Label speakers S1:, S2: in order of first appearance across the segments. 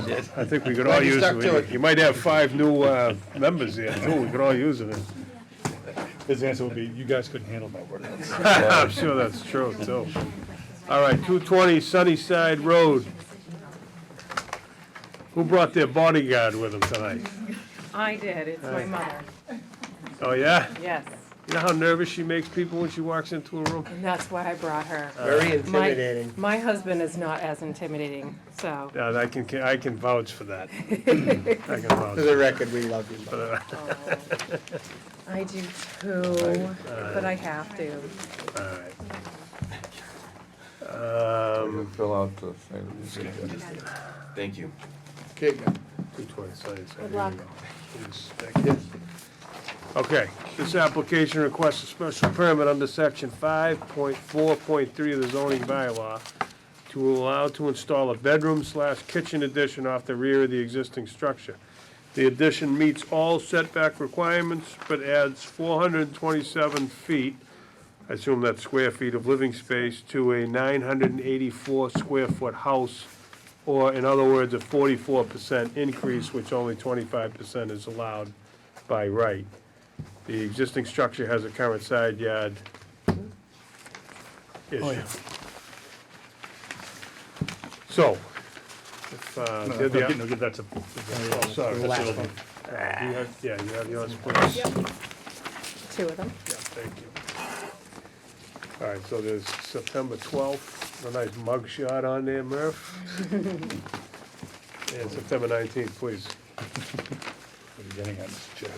S1: I think we could all
S2: Glad you
S1: use
S2: stuck to
S1: it.
S2: it.
S1: You might have five new uh, members there, too. We could all use it.
S3: His answer would be, you guys couldn't handle my workload.
S1: I'm sure that's true, too. All right, 220 Sunnyside Road. Who brought their bodyguard with them tonight?
S4: I did, it's my mother,
S1: Oh, yeah?
S4: yes.
S1: You know how nervous she makes people when she walks into a room?
S4: And that's why I brought her.
S2: Very
S4: My-
S2: intimidating.
S4: My husband is not as intimidating, so,
S1: Yeah, I can, I can vouch for that. I can vouch.
S2: For the record, we love you. Mom.
S4: I do too, but I have to.
S1: All right. Um,
S5: Fill out the thing.
S6: Thank you.
S2: Here you go.
S1: 220 Sunnyside.
S4: Good luck.
S1: Okay, this application requests a special permit under section five point four point three of the zoning bylaw to allow to install a bedroom slash kitchen addition off the rear of the existing structure. The addition meets all setback requirements, but adds four hundred and twenty-seven feet, I assume that's square feet of living space, to a nine hundred and eighty-four square foot house, or in other words, a forty-four percent increase, which only twenty-five percent is allowed by right. The existing structure has a current side yard
S3: Oh,
S1: issue. So, if, uh,
S3: No,
S1: they're the-
S3: no, give that to.
S1: oh, sorry,
S2: The last
S1: that's
S2: one.
S1: Yeah, you have- yeah, you have yours, please. Yeah,
S4: Two of them.
S1: thank you. All right, so there's September 12th, a nice mug shot on there, Murph. And September 19th, please.
S3: What are you getting at, Mr. Chair?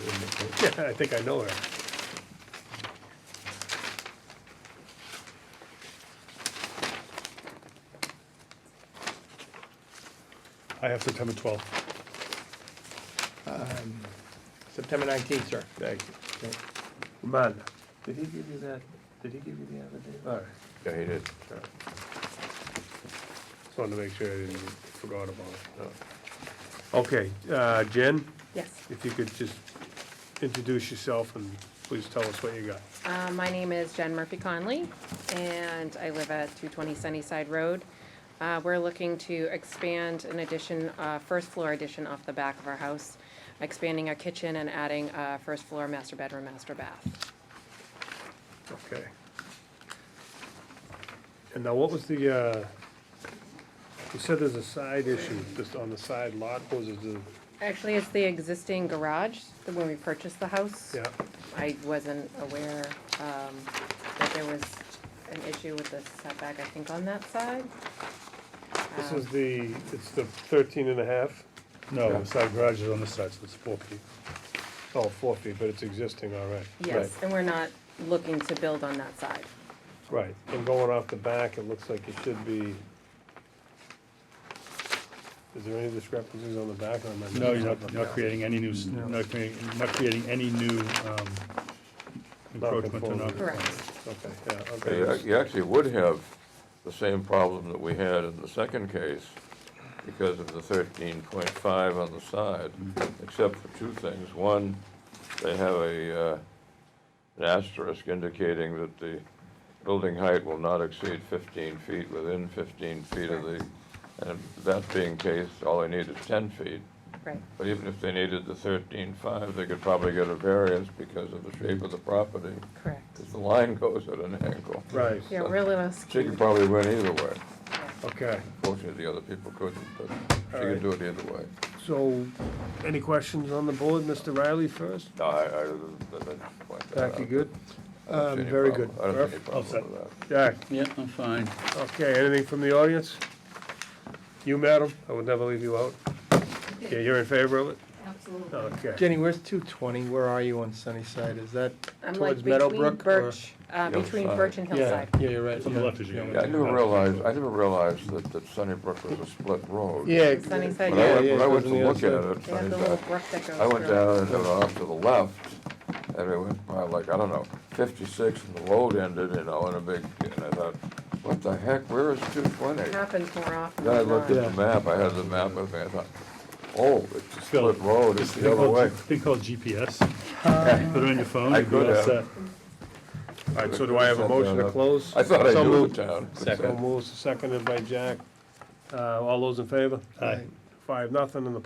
S1: Yeah, I think I know her.
S3: I have September twelfth.
S2: Um, September nineteenth, sir.
S1: Thank you. Man, did he give you that, did he give you the other day? All right,
S5: Yeah, he did.
S1: all right. Just wanted to make sure I didn't forgot about it. Okay, uh, Jen?
S4: Yes.
S1: If you could just introduce yourself and please tell us what you got.
S4: Uh, My name is Jen Murphy Conley, and I live at 220 Sunnyside Road. Uh, We're looking to expand an addition, uh, first floor addition off the back of our house, expanding our kitchen and adding a first floor master bedroom, master bath.
S1: Okay. And now what was the, uh, you said there's a side issue, just on the side lot, what was it the,
S4: Actually, it's the existing garage, the- when we purchased the house.
S1: yeah,
S4: I wasn't aware um, that there was an issue with the setback, I think, on that side.
S1: this
S4: Um,
S1: is the, it's the thirteen and a half?
S3: No, the side garage is on this side, so it's four feet.
S1: Oh, four feet, but it's existing, all right.
S4: Yes, and we're not looking to build on that side.
S1: Right, and going off the back, it looks like it should be. Is there any discrepancies on the back or am I?
S3: No, you're not, you're not creating any new, s- not creating, not creating any new, um, encroachment or not.
S1: Nonconformity.
S4: Correct.
S1: Okay, yeah, okay.
S5: You ac- you actually would have the same problem that we had in the second case because of the thirteen point five on the side, except for two things. One, they have a, uh, an asterisk indicating that the building height will not exceed fifteen feet within fifteen feet of the, and that being case, all they need is ten feet.
S4: Right,
S5: But even if they needed the thirteen-five, they could probably get a variance because of the shape of the property,
S4: correct.
S5: because the line goes at an angle.
S1: Right,
S4: Yeah, really less.
S5: She could probably win either way.
S1: okay,
S5: Fortunately, the other people couldn't, but she could do it either way.
S1: so, any questions on the board, Mr. Riley first?
S5: No, I, I, that- that- that-
S1: Jack, you good?
S5: I
S2: Um,
S5: don't see any
S1: very
S5: problem.
S1: good.
S5: I don't see any
S1: Perfect.
S3: All set.
S5: problem with that.
S1: Jack,
S7: Yeah, I'm fine.
S1: okay, anything from the audience? You, madam, I would never leave you out. Yeah, you're in favor of it?
S8: Absolutely.
S1: Okay.
S2: Jenny, where's two twenty? Where are you on Sunnyside? Is that
S4: I'm like
S2: towards
S4: between
S2: Meadowbrook? or-
S4: Birch, uh,
S5: Hillside.
S4: between Birch and
S2: Yeah,
S4: Hillside.
S2: yeah, you're right.
S3: It's on the
S2: yeah,
S3: left as you
S2: yeah.
S3: go.
S5: Yeah, I never realized, I never realized that, that Sunnybrook was a split road.
S2: Yeah.
S4: Sunnyside,
S5: When
S4: yeah,
S5: I went,
S2: yeah,
S5: when I
S2: it
S5: went
S2: goes
S5: to
S2: on the
S5: look at
S2: other
S5: it,
S4: They have the little
S5: Sunnybrook,
S4: brook that goes through.
S5: I went down and then off to the left, and it went by like, I don't know, fifty-six, and the road ended, you know, in a big, and I thought, what the heck, where is two twenty?
S4: It Happens more often
S5: Then I
S4: than not.
S5: looked at the map, I had the map with me, I thought, oh, it's a split road, it's
S3: This
S5: the
S3: thing
S5: other
S3: called,
S5: way.
S3: thing called GPS. Put it on your phone,
S5: I
S3: you'd be
S5: could
S3: all
S5: have.
S3: set.
S1: All right, so do I have a motion to close?
S5: I thought I
S1: So
S5: knew
S1: moved.
S5: the town.
S1: So moves, seconded by Jack. Uh, all those in favor?
S3: Aye.
S1: five, nothing, and the